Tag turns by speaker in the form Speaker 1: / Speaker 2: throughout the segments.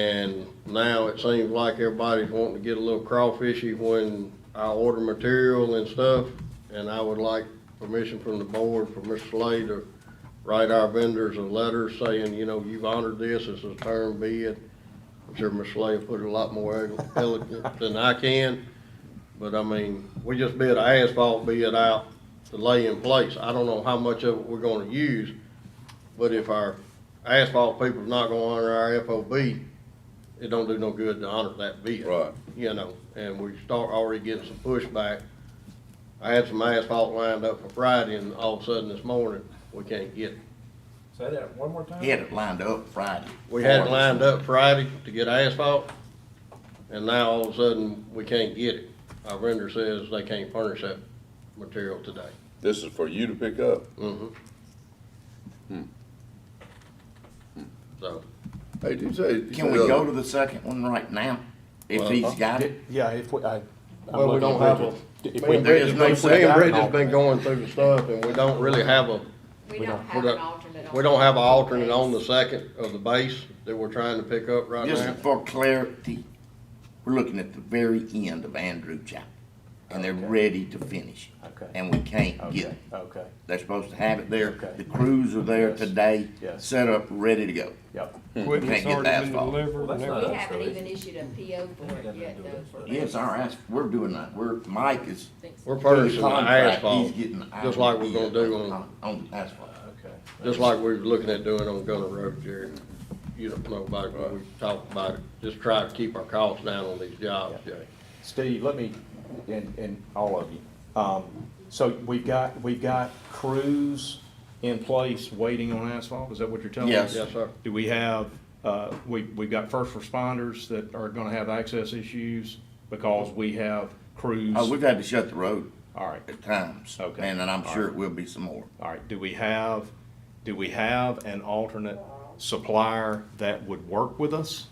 Speaker 1: And now it seems like everybody's wanting to get a little crawfishy when I order material and stuff. And I would like permission from the board for Mr. Slay to write our vendors a letter saying, you know, you've honored this, this is term bid. I'm sure Mr. Slay will put it a lot more elegant than I can. But I mean, we just bid asphalt bid out to lay in place. I don't know how much of it we're gonna use. But if our asphalt people's not gonna honor our FOB, it don't do no good to honor that bid.
Speaker 2: Right.
Speaker 1: You know, and we start already getting some pushback. I had some asphalt lined up for Friday and all of a sudden this morning, we can't get it.
Speaker 3: Say that one more time?
Speaker 2: He had it lined up Friday.
Speaker 1: We had it lined up Friday to get asphalt, and now all of a sudden, we can't get it. Our vendor says they can't furnish that material today.
Speaker 4: This is for you to pick up.
Speaker 1: Mm-hmm. So,
Speaker 4: Hey, did you say? you
Speaker 2: Can we
Speaker 4: said-
Speaker 2: go to the second one right now? If he's got it?
Speaker 3: Yeah, if we, I. I'm
Speaker 1: well, we
Speaker 3: looking
Speaker 1: don't
Speaker 3: at
Speaker 1: have a,
Speaker 3: Bridget. If
Speaker 1: me
Speaker 3: we-
Speaker 1: and
Speaker 2: there is
Speaker 1: Bridget's
Speaker 2: no
Speaker 1: been, me and
Speaker 2: second.
Speaker 1: Bridget's been going through the stuff, and we don't really have a, we
Speaker 5: We don't have an
Speaker 1: don't,
Speaker 5: alternate. on
Speaker 1: we don't have an
Speaker 5: that.
Speaker 1: alternate on the second of the base that we're trying to pick up right
Speaker 2: Just
Speaker 1: now.
Speaker 2: for clarity, we're looking at the very end of Andrew Chapel. And they're ready to finish.
Speaker 3: Okay.
Speaker 2: And we can't
Speaker 3: Okay,
Speaker 2: get it.
Speaker 3: okay,
Speaker 2: They're supposed to have it there.
Speaker 3: Okay.
Speaker 2: The crews are there
Speaker 3: Yes,
Speaker 2: today,
Speaker 3: yes.
Speaker 2: set up, ready to go.
Speaker 3: yep.
Speaker 2: Can't
Speaker 6: Equipment's
Speaker 2: get the
Speaker 6: already been
Speaker 2: asphalt.
Speaker 6: delivered
Speaker 3: Well,
Speaker 6: and
Speaker 3: that's
Speaker 6: everything.
Speaker 3: not-
Speaker 5: We haven't
Speaker 3: so
Speaker 5: even issued a PO for it yet, though.
Speaker 2: Yes, our ass, we're doing that. We're, Mike is.
Speaker 1: We're furnishing the
Speaker 2: contract,
Speaker 1: asphalt,
Speaker 2: He's getting.
Speaker 1: just like we're gonna do
Speaker 2: ideas
Speaker 1: on-
Speaker 2: On the asphalt.
Speaker 3: Okay.
Speaker 1: Just like we were looking at doing on Gunner Road, Jerry. You don't know about it, but we talked about it. Just try to keep our costs down on these jobs, Jerry.
Speaker 3: Steve, let me, and, and all of you, um, so we've got, we've got crews in place waiting on asphalt, is that what you're telling us?
Speaker 2: Yes.
Speaker 1: Yes, sir.
Speaker 3: Do we have, uh, we, we've got first responders that are gonna have access issues because we have crews?
Speaker 2: Oh, we've had to shut the road
Speaker 3: All right.
Speaker 2: at times.
Speaker 3: Okay.
Speaker 2: And then I'm
Speaker 3: All
Speaker 2: sure
Speaker 3: right.
Speaker 2: it will be some more.
Speaker 3: All right, do we have, do we have an alternate supplier that would work with us?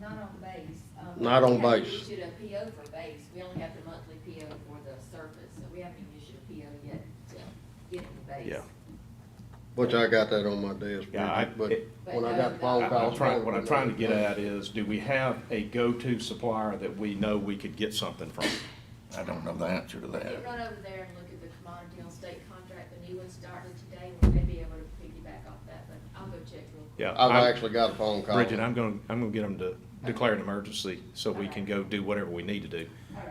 Speaker 5: Not on base. Um,
Speaker 1: Not on
Speaker 5: we haven't
Speaker 1: base.
Speaker 5: Issued a PO for base. We only have the monthly PO for the surface, so we haven't even issued a PO yet to get it to base.
Speaker 3: Yeah.
Speaker 1: Which I got that on my desk,
Speaker 3: Yeah, I-
Speaker 1: Bridget, but
Speaker 3: it-
Speaker 1: when I got the
Speaker 5: I-
Speaker 1: phone
Speaker 3: I-
Speaker 1: call.
Speaker 3: I'm trying, what I'm trying to get at is, do we have a go-to supplier that we know we could get something from?
Speaker 2: I don't know the answer to
Speaker 5: We can
Speaker 2: that.
Speaker 5: run over there and look at the commodity on state contract. The new one started today. We may be able to piggyback off that, but I'll go check real quick.
Speaker 3: Yeah.
Speaker 1: I've
Speaker 3: I'm-
Speaker 1: actually got a phone call.
Speaker 3: Bridget, I'm gonna, I'm gonna get them to declare an emergency so we can go do whatever we need to do.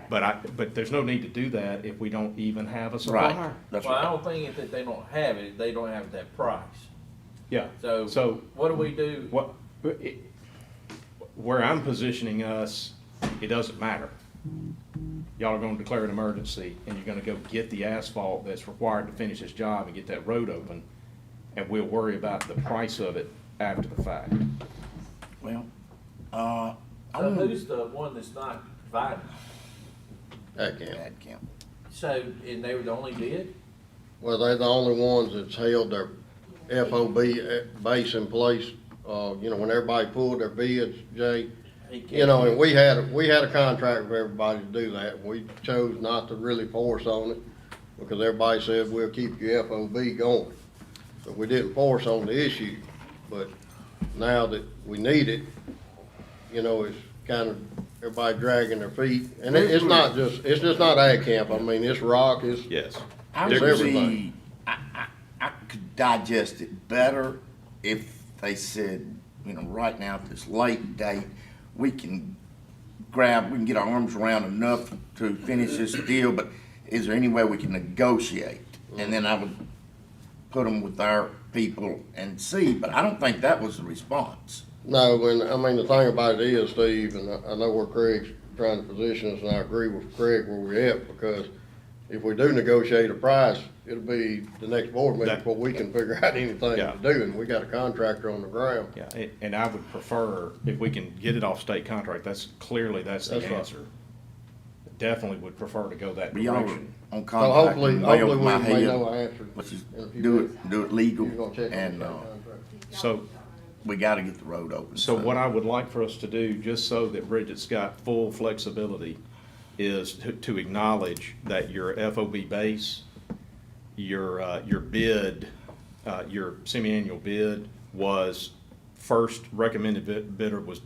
Speaker 3: But I, but there's no need to do that if we don't even have a
Speaker 2: Right,
Speaker 3: supplier.
Speaker 2: that's
Speaker 7: Well, I
Speaker 2: right.
Speaker 7: don't think it's that they don't have it, they don't have that price.
Speaker 3: Yeah,
Speaker 7: So,
Speaker 3: so
Speaker 7: what do we do?
Speaker 3: what, it- where I'm positioning us, it doesn't matter. Y'all are gonna declare an emergency, and you're gonna go get the asphalt that's required to finish this job and get that road open, and we'll worry about the price of it after the fact.
Speaker 2: Well, uh, I
Speaker 7: So
Speaker 2: want
Speaker 7: who's the one that's not providing?
Speaker 1: That can.
Speaker 2: that count.
Speaker 7: So, and they were the only bid?
Speaker 1: Well, they're the only ones that's held their FOB at- eh, base in place. Uh, you know, when everybody pulled their bids, Jay,
Speaker 7: He can't-
Speaker 1: You know, and we had, we had a contract with everybody to do that, we chose not to really force on it, because everybody said, we'll keep your FOB going. So we didn't force on the issue, but now that we need it, you know, it's kind of, everybody dragging their feet. And it, it's not just, it's just not ag camp, I mean, it's rock, it's,
Speaker 3: Yes.
Speaker 2: I
Speaker 1: There's
Speaker 2: would
Speaker 1: everybody.
Speaker 2: see, I, I, I could digest it better if they said, you know, right now at this late date, we can grab, we can get our arms around enough to finish this deal, but is there any way we can negotiate? And then I would put them with our people and see, but I don't think that was the response.
Speaker 1: No, when, I mean, the thing about it is, Steve, and I, I know where Craig's trying to position us, and I agree with Craig where we're at, because if we do negotiate a price, it'll be the next board meeting
Speaker 3: That-
Speaker 1: before we can figure out anything
Speaker 3: Yeah.
Speaker 1: to do, and we got a contractor on the ground.
Speaker 3: Yeah, a- and I would prefer, if we can get it off state contract, that's, clearly that's the
Speaker 1: That's right.
Speaker 3: answer. Definitely would prefer to go that
Speaker 2: But y'all were
Speaker 3: direction.
Speaker 2: on
Speaker 1: So
Speaker 2: contract
Speaker 1: hopefully,
Speaker 2: and way
Speaker 1: hopefully
Speaker 2: over
Speaker 1: we
Speaker 2: my
Speaker 1: may know uh,
Speaker 2: head.
Speaker 1: an answer.
Speaker 2: Let's just
Speaker 1: in a few
Speaker 2: do
Speaker 1: days.
Speaker 2: it, do it
Speaker 1: You're gonna
Speaker 2: legal
Speaker 1: check on
Speaker 2: and,
Speaker 1: that
Speaker 2: uh,
Speaker 1: contract.
Speaker 3: So,
Speaker 2: we gotta get the road open.
Speaker 3: So what I would like for us to do, just so that Bridget's got full flexibility, is to- to acknowledge that your FOB base, your, uh, your bid, uh, your semi-annual bid was, first recommended bid- bidder was